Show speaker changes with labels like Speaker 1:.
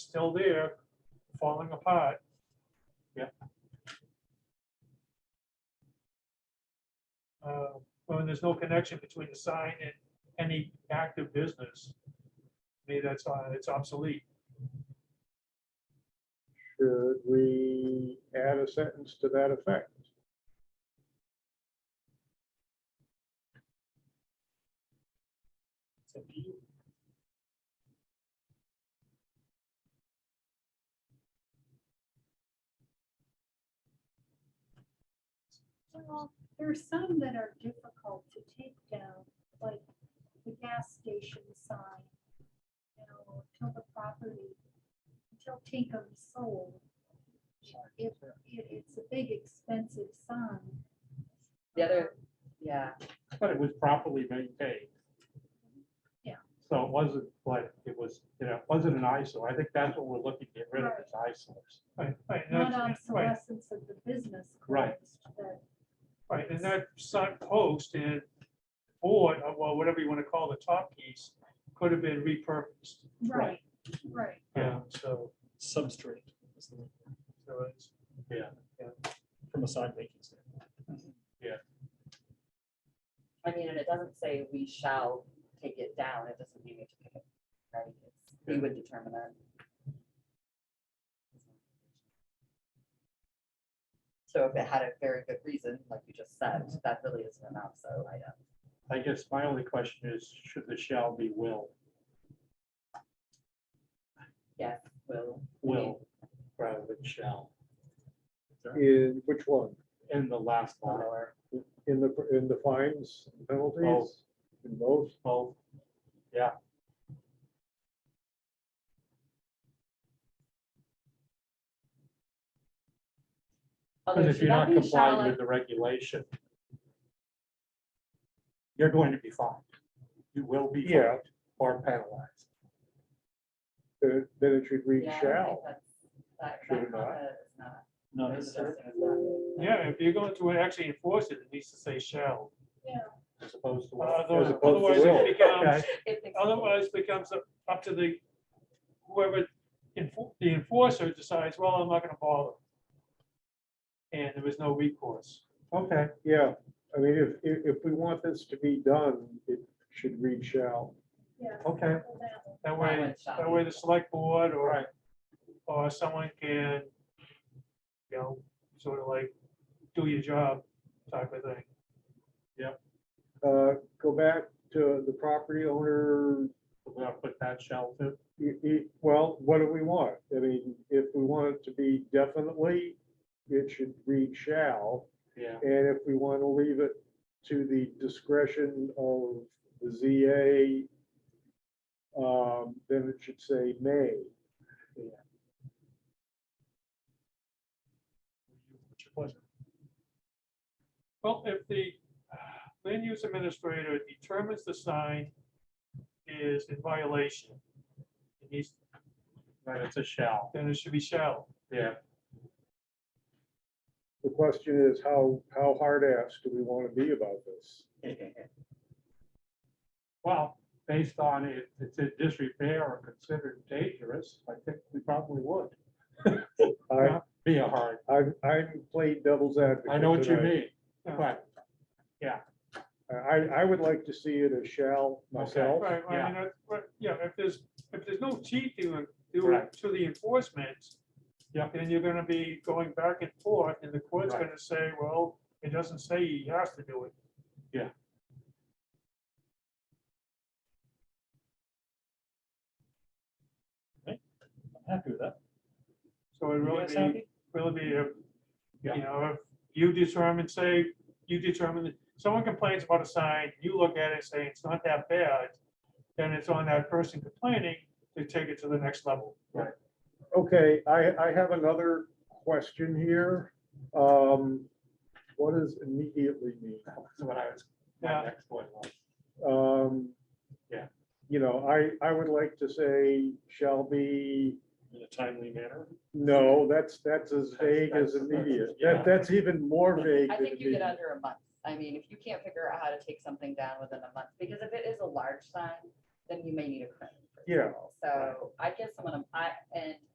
Speaker 1: still there, falling apart.
Speaker 2: Yeah.
Speaker 1: Uh, When there's no connection between the sign and any active business, to me, that's, uh, it's obsolete.
Speaker 3: Should we add a sentence to that effect?
Speaker 4: Well, there are some that are difficult to take down, like the gas station sign. You know, until the property, until Tinkham is sold. If, if it's a big expensive sign.
Speaker 5: The other- Yeah,
Speaker 2: but it was properly maintained.
Speaker 4: Yeah.
Speaker 2: So it wasn't like, it was, you know, it wasn't an eyesore. I think that's what we're looking to get rid of is eyesores.
Speaker 1: Right, right, and
Speaker 4: Not
Speaker 1: that's- right,
Speaker 4: obsolescence of the business.
Speaker 2: Right.
Speaker 4: cost that-
Speaker 1: right, and that sign post and board, or well, whatever you want to call the top piece, could have been repurposed.
Speaker 4: Right, right.
Speaker 1: Yeah, so,
Speaker 6: substrate is the word,
Speaker 1: so it's,
Speaker 6: from a sign making standpoint.
Speaker 5: I mean, and it doesn't say we shall take it down, it doesn't mean we have to pick it, right? It's- We would determine that. So if it had a very good reason, like you just said, that really isn't enough, so I uh, don't.
Speaker 2: I guess my only question is, should the shall be will?
Speaker 5: Yes, will.
Speaker 2: Will rather than shall
Speaker 3: In which one? Uh,
Speaker 2: in the last line.
Speaker 5: Follower.
Speaker 3: In the, in the fines and penalties?
Speaker 2: Both.
Speaker 3: In both?
Speaker 2: Both. Yeah.
Speaker 5: Although
Speaker 2: Because if
Speaker 5: should
Speaker 2: you're
Speaker 5: that
Speaker 2: not
Speaker 5: be shall
Speaker 2: complying
Speaker 5: and-
Speaker 2: with the regulation, you're going to be fined. You will be
Speaker 3: Yeah.
Speaker 2: fined or penalized.
Speaker 3: Then then it should read
Speaker 5: Yeah, I don't
Speaker 3: shall.
Speaker 5: think that's- That,
Speaker 3: Should
Speaker 5: that
Speaker 3: it not?
Speaker 5: concept is not.
Speaker 6: Not
Speaker 5: it's
Speaker 6: necessarily.
Speaker 5: suggesting it's not-
Speaker 1: yeah, if you're going to actually enforce it, it needs to say shall.
Speaker 2: As opposed to.
Speaker 1: Uh,
Speaker 2: will.
Speaker 1: those-
Speaker 3: As opposed to
Speaker 1: Otherwise,
Speaker 3: will.
Speaker 1: it becomes,
Speaker 2: Okay.
Speaker 5: It makes-
Speaker 1: otherwise becomes up- up to the, whoever, enfor- the enforcer decides, well, I'm not gonna bother. And there was no recourse.
Speaker 2: Okay,
Speaker 3: Yeah, I mean, if, if, if we want this to be done, it should read shall.
Speaker 4: Yeah.
Speaker 2: okay.
Speaker 4: well, that one.
Speaker 1: That
Speaker 5: That
Speaker 1: way,
Speaker 5: one shall
Speaker 1: that
Speaker 5: be.
Speaker 1: way the select board or,
Speaker 2: Right.
Speaker 1: or someone can, you know, sort of like, do your job type of thing.
Speaker 3: Uh, Go back to the property owner,
Speaker 2: We're gonna put that shall to,
Speaker 3: y- y- well, what do we want? I mean, if we want it to be definitely, it should read shall.
Speaker 2: yeah,
Speaker 3: And if we want to leave it to the discretion of the ZA, um, then it should say may.
Speaker 6: What's your pleasure?
Speaker 1: Well, if the uh, land use administrator determines the sign is in violation, it needs,
Speaker 2: but it's a shall,
Speaker 1: then it should be shall.
Speaker 2: yeah.
Speaker 3: The question is, how, how hard ass do we want to be about this?
Speaker 2: Well, based on if it's in disrepair or considered dangerous, I think we probably would
Speaker 3: I,
Speaker 2: be a hard,
Speaker 3: I, I'm playing devil's advocate.
Speaker 2: I know what you
Speaker 3: tonight.
Speaker 2: mean,
Speaker 1: Yeah.
Speaker 2: but
Speaker 3: I, I would like to see it as shall myself.
Speaker 1: Right, I
Speaker 2: Yeah.
Speaker 1: mean, that's what- yeah, if there's, if there's no teeth to, to
Speaker 2: Correct.
Speaker 1: to the enforcement.
Speaker 2: Yeah.
Speaker 1: Then you're gonna be going back and forth, and the court's
Speaker 2: Right.
Speaker 1: gonna say, well, it doesn't say he has to do it.
Speaker 2: Yeah.
Speaker 6: I'm happy with that.
Speaker 1: So it
Speaker 6: You
Speaker 1: really
Speaker 6: guys
Speaker 1: be,
Speaker 6: happy?
Speaker 1: really be, a-
Speaker 2: Yeah.
Speaker 1: you know, if you determine, say, you determine, that someone complains about a sign, you look at it, and say, it's not that bad. Then it's on that person complaining to take it to the next level.
Speaker 3: Okay, I, I have another question here. Um, What does immediately mean?
Speaker 2: that's what I was,
Speaker 1: Yeah.
Speaker 2: my next point was.
Speaker 3: Um,
Speaker 2: Yeah.
Speaker 3: You know, I, I would like to say shall be,
Speaker 6: In a timely manner.
Speaker 3: no, that's, that's as vague as
Speaker 2: That's- that's-
Speaker 3: immediate.
Speaker 2: yeah.
Speaker 3: That, that's even more vague
Speaker 5: I
Speaker 3: than
Speaker 5: think you get
Speaker 3: immediate.
Speaker 5: under a month. I mean, if you can't figure out how to take something down within a month, because if it is a large sign, then you may need a crane. for
Speaker 3: Yeah.
Speaker 5: people. So I guess I'm gonna, I, and